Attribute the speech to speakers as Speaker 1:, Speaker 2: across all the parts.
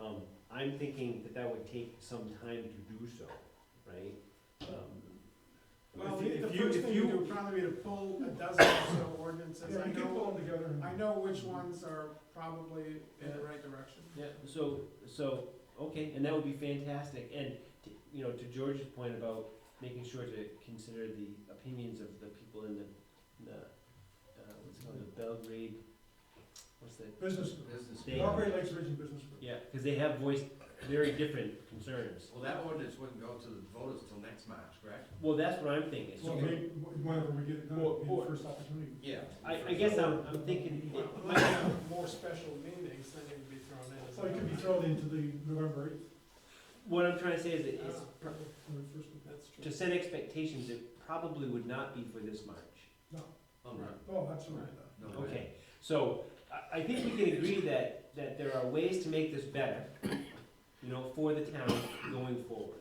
Speaker 1: Um, I'm thinking that that would take some time to do so, right? Um,
Speaker 2: Well,
Speaker 3: If you-
Speaker 2: the the
Speaker 3: if you-
Speaker 2: first
Speaker 3: if
Speaker 2: thing to
Speaker 3: you-
Speaker 2: do would probably be to pull a dozen or so ordinances.
Speaker 3: Yeah,
Speaker 2: I
Speaker 3: you can
Speaker 2: know,
Speaker 3: pull them together. and-
Speaker 2: I know which ones are probably in the
Speaker 1: Yeah.
Speaker 2: right direction.
Speaker 1: Yeah, so, so, okay, and that would be fantastic, and, to- you know, to George's point about making sure to consider the opinions of the people in the, the, uh, what's it called, the Belgrade, what's that?
Speaker 3: Business.
Speaker 4: Business.
Speaker 1: They-
Speaker 3: Belgrade Lakes Region Business Group.
Speaker 1: Yeah, cause they have voiced very different concerns.
Speaker 4: Well, that ordinance wouldn't go to the voters till next March, correct?
Speaker 1: Well, that's what I'm thinking,
Speaker 3: Well,
Speaker 1: so,
Speaker 3: maybe, whenever we get it done,
Speaker 1: Well,
Speaker 3: it'll be the
Speaker 1: or-
Speaker 3: first opportunity.
Speaker 4: Yeah.
Speaker 1: I, I guess I'm, I'm thinking,
Speaker 2: Well,
Speaker 1: it
Speaker 2: Might
Speaker 1: might-
Speaker 2: have more special meetings that need to be thrown in. as
Speaker 3: So it could be
Speaker 2: well.
Speaker 3: thrown into the November eighth,
Speaker 1: what I'm trying to say is, that it's,
Speaker 2: Ah,
Speaker 1: pr-
Speaker 3: or first,
Speaker 2: That's true.
Speaker 1: to set expectations, it probably would not be for this March.
Speaker 4: Oh, no,
Speaker 3: oh, absolutely.
Speaker 4: no way.
Speaker 1: Okay, so I, I think we can agree that, that there are ways to make this better, you know, for the town going forward.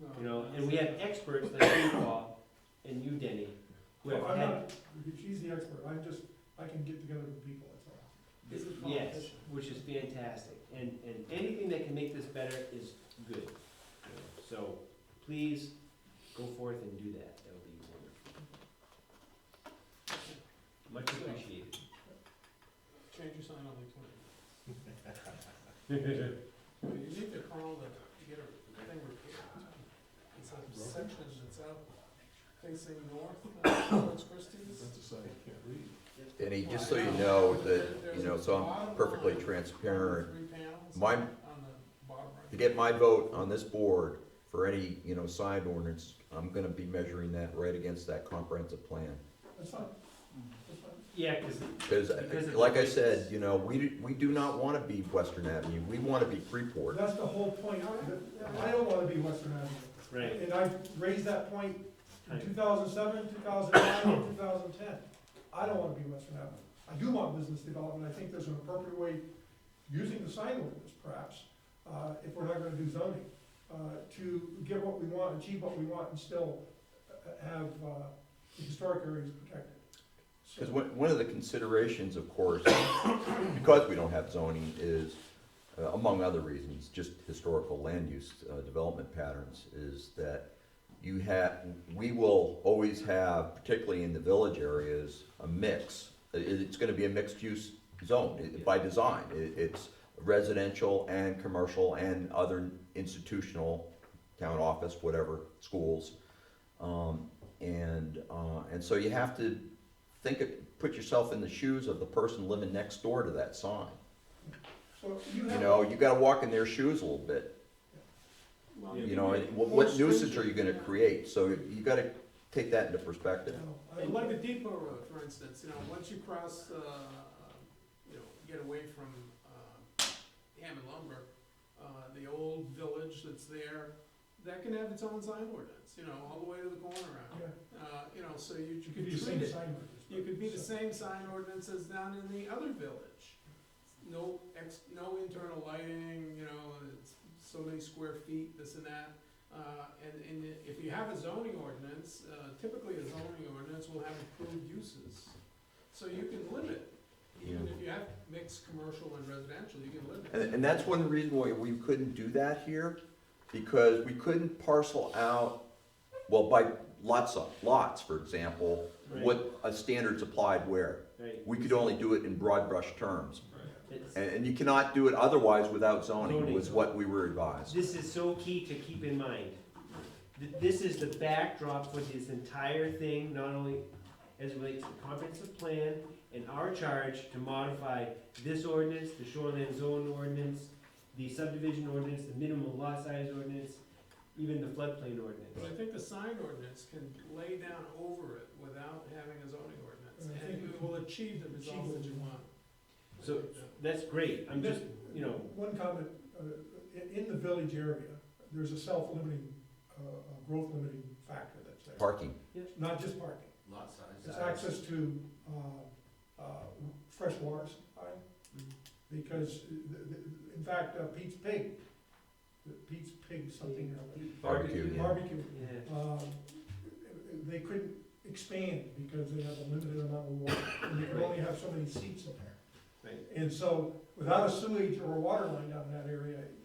Speaker 2: No,
Speaker 1: You know, and we have experts like you, Paul, and you, Denny, who
Speaker 3: Well,
Speaker 1: have
Speaker 3: I'm
Speaker 1: had,
Speaker 3: not, she's the expert, I'm just, I can get together with people, that's all.
Speaker 2: He's a
Speaker 1: yes,
Speaker 2: politician.
Speaker 1: which is fantastic. And, and anything that can make this better is good. you know. So please go forth and do that, that would be wonderful. Much appreciated.
Speaker 2: Change your sign on the twenty. Well, You need to call the, to get a thing repaired. It's a section that's out facing north, uh, towards Christie's.
Speaker 5: Denny, just so you
Speaker 2: Well, I
Speaker 5: know
Speaker 2: but
Speaker 5: that,
Speaker 2: there-
Speaker 5: you know,
Speaker 2: there's a
Speaker 5: so I'm
Speaker 2: bottom
Speaker 5: perfectly
Speaker 2: line,
Speaker 5: transparent.
Speaker 2: Three panels
Speaker 5: My,
Speaker 2: on the bottom
Speaker 5: to
Speaker 2: right.
Speaker 5: get my vote on this board for any, you know, sign ordinance, I'm gonna be measuring that right against that comprehensive plan.
Speaker 3: That's fine,
Speaker 1: Mm.
Speaker 3: that's fine.
Speaker 1: Yeah, cause,
Speaker 5: Cause, uh,
Speaker 1: Because of
Speaker 5: like
Speaker 1: the
Speaker 5: I said,
Speaker 1: distance.
Speaker 5: you know, we, do- we do not wanna be Western Avenue, we wanna be Freeport.
Speaker 3: That's the whole point, that- I don't wanna be Western Avenue.
Speaker 1: right.
Speaker 3: And I raised that point in two thousand seven, two thousand nine, two thousand ten. I don't wanna be Western Avenue. I do want business development, I think there's an appropriate way, using the sign ordinance perhaps, uh, if we're not gonna do zoning, uh, to get what we want, achieve what we want, and still uh, have, uh, the historic areas protected. So-
Speaker 5: Because one, one of the considerations, of course, because we don't have zoning, is, uh, among other reasons, just historical land use uh, development patterns, is that you have, we will always have, particularly in the village areas, a mix. I- it's gonna be a mixed-use zone i- by design. It, it's residential and commercial and other institutional, town office, whatever, schools. Um, and, uh, and so you have to think of, put yourself in the shoes of the person living next door to that sign.
Speaker 3: So you
Speaker 5: You
Speaker 3: have.
Speaker 5: know, you gotta walk in their shoes a little bit,
Speaker 2: Well,
Speaker 5: you know, and what, what nuisance are you gonna create? So you gotta take that into perspective.
Speaker 3: you know, I
Speaker 2: And Like
Speaker 3: like
Speaker 2: the
Speaker 3: it.
Speaker 2: depot road, for instance, you know, once you cross, uh, you know, get away from, uh, Hammond lumber, uh, the old village that's there, that can have its own sign ordinance, you know, all the way to the corner out.
Speaker 3: Yeah,
Speaker 2: Uh, you know, so you,
Speaker 3: You
Speaker 2: you
Speaker 3: could
Speaker 2: could
Speaker 3: be the
Speaker 2: treat
Speaker 3: same
Speaker 2: it,
Speaker 3: sign. ordinance,
Speaker 2: you could be the
Speaker 3: so-
Speaker 2: same sign ordinance as down in the other village. No ex, no internal lighting, you know, it's so many square feet, this and that. Uh, and, and if you have a zoning ordinance, uh, typically a zoning ordinance will have approved uses. So you can limit, even if you have mixed commercial and residential, you can limit.
Speaker 5: And, and that's one reason why we couldn't do that here, because we couldn't parcel out, well, by lots of, lots, for example,
Speaker 1: Right.
Speaker 5: what a standards applied where.
Speaker 1: Right.
Speaker 5: We could only do it in broad brush terms.
Speaker 1: It's-
Speaker 5: And, and you cannot do it otherwise without zoning,
Speaker 1: Zoning.
Speaker 5: was what we were advised.
Speaker 1: This is so key to keep in mind. Th- This is the backdrop for this entire thing, not only as it relates to the comprehensive plan and our charge to modify this ordinance, the shoreline zone ordinance, the subdivision ordinance, the minimum lot size ordinance, even the floodplain
Speaker 2: But I
Speaker 1: ordinance.
Speaker 2: think the sign ordinance can lay down over it without having a zoning ordinance,
Speaker 3: And I
Speaker 2: and
Speaker 3: think
Speaker 2: it will achieve the results that you want. I
Speaker 1: So-
Speaker 2: think that-
Speaker 1: That's great, I'm just, you know.
Speaker 3: One comment, uh, in, in the village area, there's a self-limiting, uh, uh, growth limiting factor that's there.
Speaker 5: Parking.
Speaker 3: Not just parking,
Speaker 4: Lot size.
Speaker 3: it's access to, uh, uh, fresh water supply,
Speaker 1: Mm-hmm.
Speaker 3: because, uh, th- th- in fact, uh, Pete's Pig, the Pete's Pig something or other.
Speaker 5: Barbecue, yeah.
Speaker 3: Barbecue,
Speaker 1: Yeah,
Speaker 3: uh, they couldn't expand because they have a limited amount of water, and they could only have so many seats in there.
Speaker 1: right.
Speaker 3: And so, without a sewage or a water line down in that area,